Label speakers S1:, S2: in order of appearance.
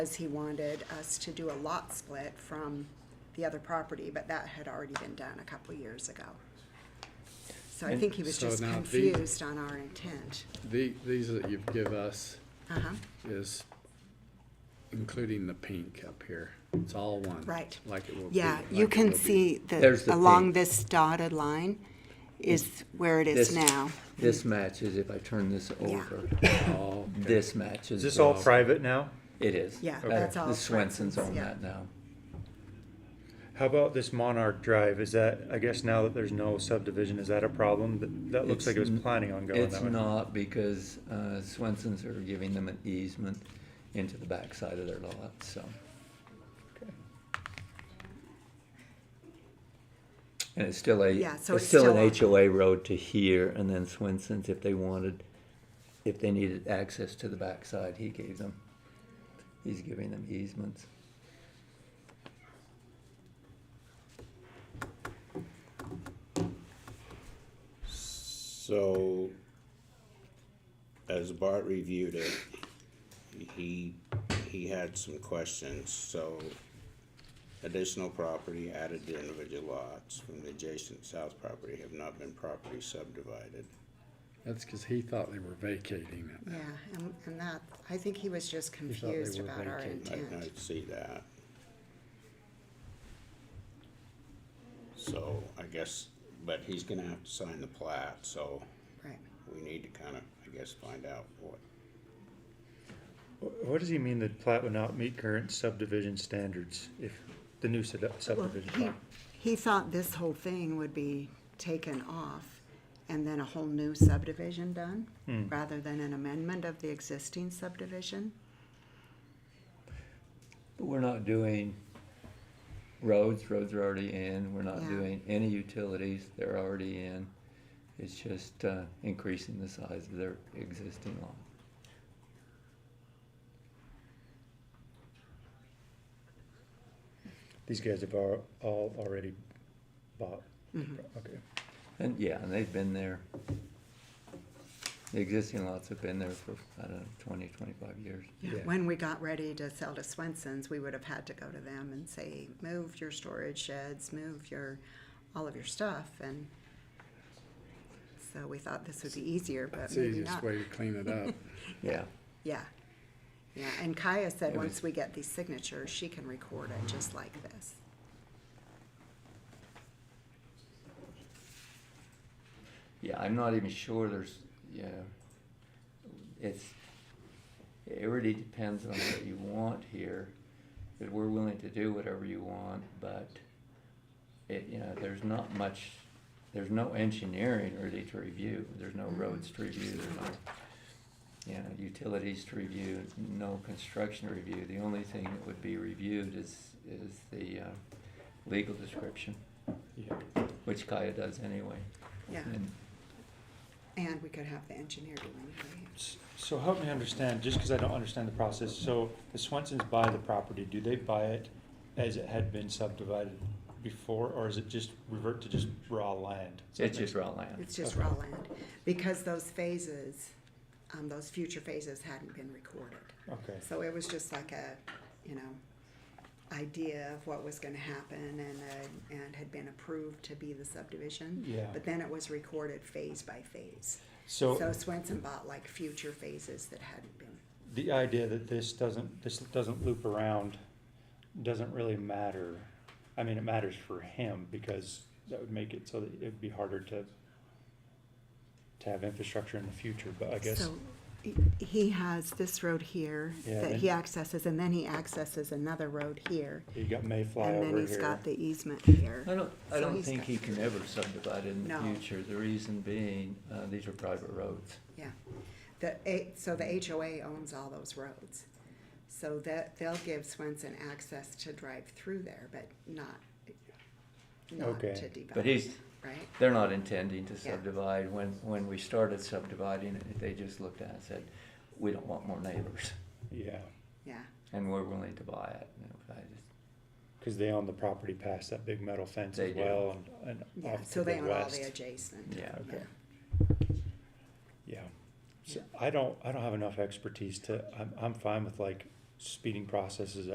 S1: because he wanted us to do a lot split from the other property, but that had already been done a couple years ago. So I
S2: And
S1: think he was
S3: so
S1: just
S3: now the-
S1: confused on our intent.
S3: The, these that you give us
S1: Uh-huh,
S3: is including the pink up here. It's all one.
S1: Right.
S3: Like it will be.
S1: yeah,
S3: like
S1: you
S3: it will
S1: can
S3: be.
S1: see
S2: There's
S1: that
S2: the
S1: along
S2: pink.
S1: this dotted line is where it is
S2: This-
S1: now.
S2: This matches, if I turn this
S1: Yeah.
S2: over,
S3: Oh, okay.
S2: this matches.
S4: Is this all
S2: well.
S4: private now?
S2: It is.
S1: Yeah,
S2: Okay.
S1: that's all
S2: The Swensons
S1: Swenson's,
S2: own
S1: yeah.
S2: that now.
S4: How about this Monarch Drive? Is that, I guess now that there's no subdivision, is that a problem? That, that
S2: It's
S4: looks like it was
S2: n-
S4: planning on going
S2: It's
S4: that way.
S2: not because uh, Swensons are giving them an easement into the backside of their lot, so. And it's still a,
S1: Yeah, so
S2: it's
S1: it's
S2: still an
S1: still
S2: HOA road to here, and then Swensons, if they wanted, if they needed access to the backside, he gave them. He's giving them easements.
S5: So, as Bart reviewed it, he, he had some questions, so additional property added to individual lots from the adjacent south property have not been properly subdivided.
S3: That's because he thought they were vacating it.
S1: Yeah, and, and that, I think he was just
S3: thought they
S1: confused
S3: were
S1: about our
S3: vacating.
S5: I
S1: intent.
S5: can see that. So, I guess, but he's gonna have to sign the plat, so
S1: Right.
S5: we need to kinda, I guess, find out what,
S4: Wh- What does he mean that plat would not meet current subdivision standards if the new sub-
S1: Well,
S4: subdivision?
S1: he,
S4: plat?
S1: he thought this whole thing would be taken off and then a whole new subdivision done, rather than an amendment of the existing subdivision.
S2: But we're not doing roads, roads are already in, we're not
S1: Yeah.
S2: doing any utilities, they're already in. It's just uh, increasing the size of their existing lot.
S4: These guys have all, all already bought.
S1: Mm-hmm.
S4: Okay.
S2: And yeah, and they've been there. The existing lots have been there for, I don't know, twenty, twenty-five years.
S4: Yeah.
S1: When we got ready to sell to Swenson's, we would have had to go to them and say, move your storage sheds, move your, all of your stuff, and so we thought this would be easier, but
S3: It's the
S1: maybe not.
S3: easiest way to clean it up.
S2: Yeah,
S1: Yeah, yeah, and Kaya said,
S2: It was-
S1: once we get these signatures, she can record it just like this.
S2: yeah, I'm not even sure there's, yeah. It's, it really depends on what you want here. That we're willing to do whatever you want, but it, you know, there's not much, there's no engineering really to review. There's no roads to review, there's no, you know, utilities to review, no construction review. The only thing that would be reviewed is, is the, uh, legal description,
S4: Yeah.
S2: which Kaya does anyway.
S1: Yeah,
S2: And
S1: and we could have the engineer do it.
S4: S- So help me understand, just because I don't understand the process. So the Swensons buy the property. Do they buy it as it had been subdivided before, or is it just revert to just raw land? Does that
S2: It's
S4: make
S2: just raw land.
S1: It's just
S4: Okay.
S1: raw land, because those phases, um, those future phases hadn't been recorded.
S4: Okay.
S1: So it was just like a, you know, idea of what was gonna happen and, uh, and had been approved to be the subdivision.
S4: Yeah.
S1: But then it was recorded phase by phase. So
S4: So
S1: Swenson bought like future phases that hadn't been,
S4: the idea that this doesn't, this doesn't loop around doesn't really matter. I mean, it matters for him because that would make it so that it'd be harder to to have infrastructure in the future, but I guess,
S1: so he- he has this road here
S4: Yeah,
S1: that
S4: then-
S1: he accesses, and then he accesses another road here.
S4: you got Mayfly
S1: And then
S4: over
S1: he's
S4: here.
S1: got the easement here.
S2: I don't, I
S1: So
S2: don't
S1: he's
S2: think
S1: got-
S2: he can ever subdivide in the
S1: No.
S2: future. The reason being, uh, these are private roads.
S1: Yeah, the, A- so the HOA owns all those roads. So that, they'll give Swenson access to drive through there, but not, not
S4: Okay.
S1: to develop.
S2: But he's-
S1: Right,
S2: They're not intending to
S1: Yeah.
S2: subdivide. When, when we started subdividing, they just looked at it and said, we don't want more neighbors,
S4: Yeah,
S1: yeah,
S2: and we're willing to buy it. And I just-
S4: because they own the property past that big metal fence
S2: They
S4: as
S2: do.
S4: well and, and
S1: yeah,
S4: off
S1: so
S4: to
S1: they
S4: the
S1: own all the
S4: west.
S1: adjacent.
S2: Yeah.
S4: Okay. Yeah. So I don't, I don't have enough expertise to, I'm, I'm fine with like speeding processes